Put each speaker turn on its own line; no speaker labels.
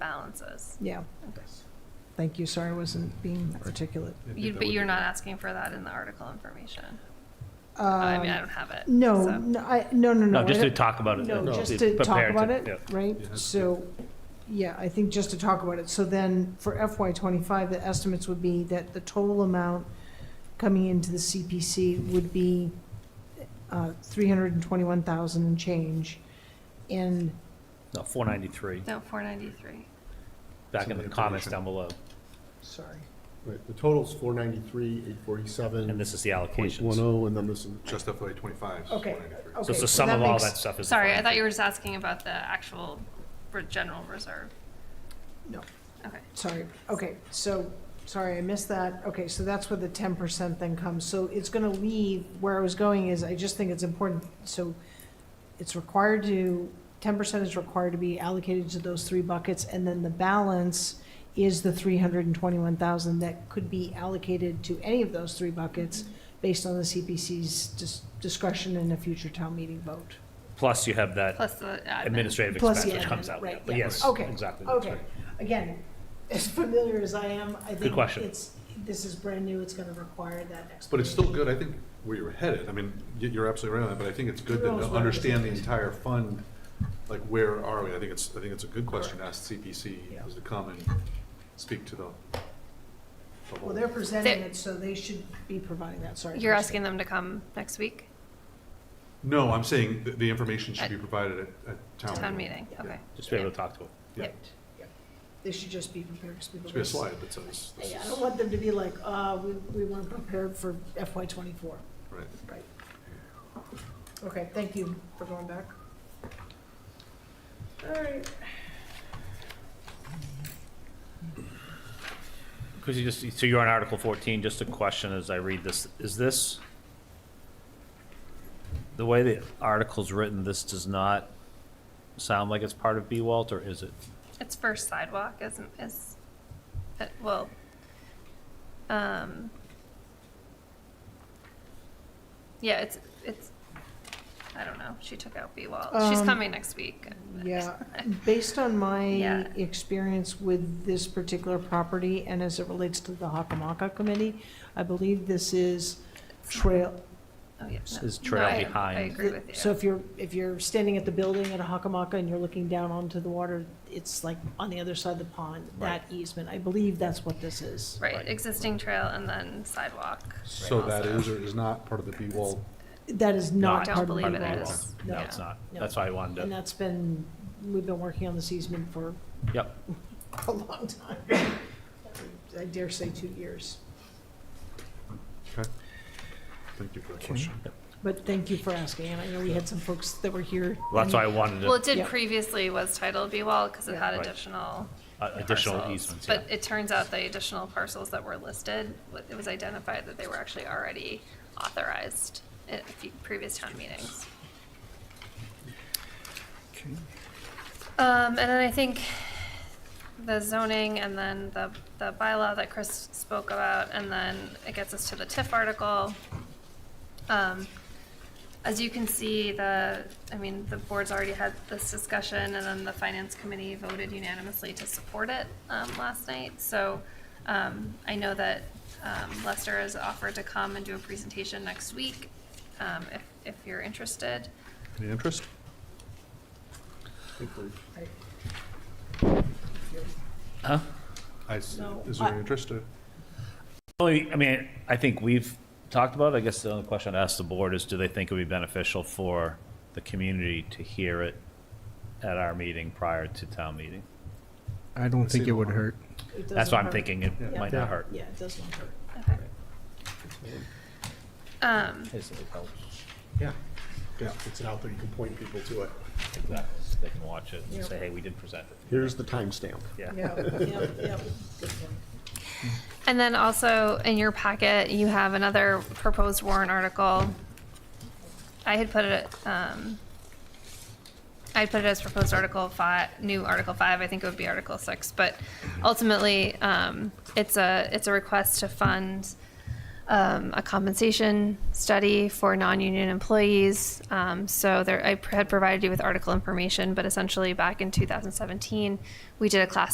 responses.
Yeah.
Okay.
Thank you. Sorry I wasn't being articulate.
I think
You,
that
but
would
you're
be-
not asking for that in the article information. I mean, I
Um,
don't have it.
No,
so-
no, I, no, no, no.
No, just
I
to
don't-
talk about it.
No,
uh,
just to talk
prepare
about it,
yeah.
Yeah,
right?
that's
So, yeah, I think just to talk about it. So then for FY twenty-five, the estimates would be that the total amount coming into the CPC would be uh, three hundred and twenty-one thousand and change. And
No, 493,
No, four ninety-three.
back
Some
in the comments
information.
down below.
Sorry.
Right, the total's four ninety-three, eight
And
forty-seven,
this is the
point
allocations.
one
So
oh, and then this is.
Just FY twenty-five. is
Okay,
193.
okay.
it's
so
the sum of all
makes-
that stuff is. the
Sorry, I thought
493.
you were just asking about the actual re- general reserve.
No.
Okay.
Sorry, okay, so, sorry, I missed that. Okay, so that's where the ten percent then comes. So it's gonna leave, where I was going is, I just think it's important, so it's required to, ten percent is required to be allocated to those three buckets, and then the balance is the three hundred and twenty-one thousand that could be allocated to any of those three buckets based on the CPC's dis- discretion in a future town meeting vote.
Plus you have that
Plus the admin.
administrative
Plus
expense
the
which comes
admin,
out.
right,
yeah. But
yeah.
yes,
Okay,
exactly. that's
Okay,
right.
again, as familiar as I am, I think
question.
it's, this is brand new, it's gonna require that explanation.
But it's still good, I think, where you're headed, I mean, y- you're absolutely right on that, but I think it's good
Who
that
knows
to
where
understand the
it's
entire fund, like, where are we? I think it's, I think it's a good question to ask
Yeah.
CPC, is to come and speak to the. the whole-
Well, they're presenting
They-
it, so they should be providing that, sorry.
You're
Kristen.
asking them to come next week
No, I'm saying th- the information should be provided at, at
to
town.
town meeting?
Yeah.
Okay.
Just be able to talk to it.
Yeah,
They should just be prepared, because people.
should be a slide that says, this
I I don't
is,
want them to be like, uh, we, we weren't prepared for FY twenty-four,
right.
right? Okay, thank you for going back. All right,
Because you just, so you're on Article 14, just a question as I read this, is this, the way the article's written, this does not sound like it's part of B-Walt, or is it?
It's first sidewalk, isn't, is, uh, well, um, yeah, it's, it's, I don't know, she took out B wall. She's
Um,
coming next week.
Yeah, based on my
Yeah.
experience with this particular property and as it relates to the Hockamaka Committee, I believe this is trail.
Oh, yeah, no.
Is trail
No, I-
behind.
I agree with you.
So if you're, if you're standing at the building at Hockamaka and you're looking down onto the water, it's like on the other side of the pond, that easement. I believe that's what this is.
Right, existing trail and then sidewalk.
So that
also.
is or is not part of the B-Wall
That is
I
not
don't
part of the
believe it
bylaw.
is.
No,
Yeah.
it's not.
No.
That's why I wanted
And
to,
that's been, we've been working on this easement for
yep.
a long time. I dare say two years.
Okay. Thank you for that question.
But thank you for asking, and I know we had some folks that were here.
Well, That's why I wanted
Well, it
to-
did
Yeah.
previously was titled B wall because it
Yeah.
had
Right.
additional
uh, additional
parcels.
easements, yeah.
But it turns out the additional parcels that were listed, wa- it was identified that they were actually already authorized at a few previous town meetings. Um, and then I think the zoning and then the, the bylaw that Chris spoke about, and then it gets us to the TIF article. Um, as you can see, the, I mean, the board's already had this discussion, and then the finance committee voted unanimously to support it, um, last night, so, um, I know that, um, Lester has offered to come and do a presentation next week, um, if, if you're interested.
Any interest?
Huh?
I s
No,
is there
I-
any interest to?
Only, I mean, I think we've talked about, it. I guess the only question I'd ask the board is, do they think it would be beneficial for the community to hear it at our meeting prior to town meeting?
I don't think it would
Casino.
hurt.
It
That's
doesn't
why I'm
hurt.
thinking it
Yeah.
might not hurt.
Yeah, it does not hurt.
Okay. Um,
Yeah. Yeah, it's an out there, you can point people to it.
Exactly. They can watch it
Yeah.
and say, hey, we did present it.
Here's the timestamp.
Yeah.
Yeah, yeah, yeah, good point.
And then also in your packet, you have another proposed warrant article. I had put it, um, I put it as proposed article five, new article five, I think it would be article six, but ultimately, um, it's a, it's a request to fund, um, a compensation study for non-union employees. Um, so there, I had provided you with article information, but essentially back in two thousand seventeen, we did a class